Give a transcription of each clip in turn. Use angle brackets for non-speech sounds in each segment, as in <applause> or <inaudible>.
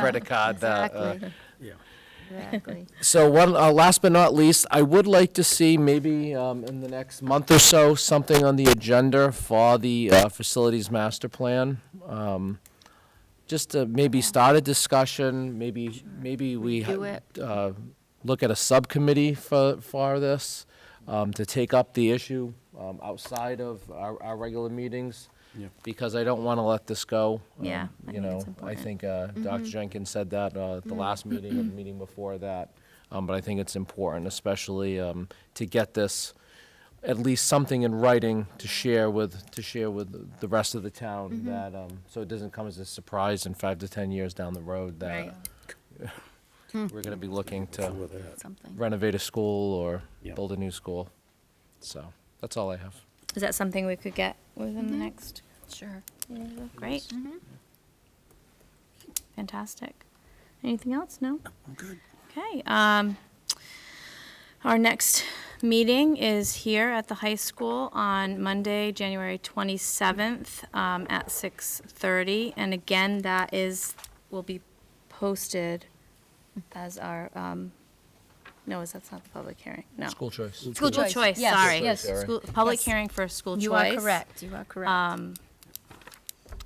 credit card. uh, uh, Oh, Exactly, Yeah. <laughs> <laughs> exactly. So one, uh, last but not least, I would like to see maybe um, in the next month or so, something on the agenda for the uh, facilities master plan. Um, Just to maybe start a discussion, maybe, maybe we Do ha- it. uh, look at a subcommittee for, for this, um, to take up the issue um, outside of our, our regular meetings, Yeah. because I don't want to let this go. um, Yeah, I You think know, it's I important. Mm-hmm. think uh, Dr. Jenkins said that uh, at the last meeting <clears throat> and the meeting before that, Um, but I think it's important, especially um, to get this, at least something in writing to share with, to share with the rest of the Mm-hmm. town that, um, so it doesn't come as a surprise in five to 10 years down the road that Right, we're going to be looking to With that. something. renovate a school or Yeah. build a new school. So that's all I have. Is that something we could get within the next? Sure. Great. Mm-hmm. Fantastic. Anything else? No? Okay. Um, our next meeting is here at the high school on Monday, January 27th um, at 6:30. And again, that is, will be posted as our, um, no, is that's not the public hearing? No. School choice. School choice. choice, Yes. sorry. Yes. Sorry. School- Public Yes. hearing for school choice. You are correct, you are Uh, correct.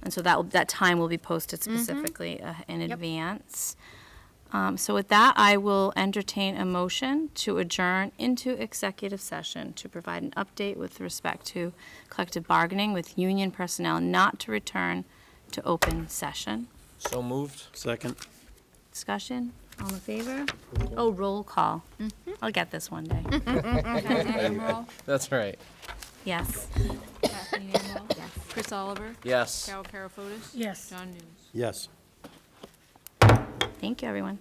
And so that, will- that time will be posted specifically uh, in advance. Um, So with that, I will entertain a motion to adjourn into executive session to provide an update with respect to collective bargaining with union personnel not to return to open session. So moved. Second. Discussion, all in favor? Oh, roll call. I'll get this one day. That's right. Yes. Kathleen Anwell. Chris Oliver. Yes. Carol Karafotis. Yes. John News. Yes. Thank you, everyone.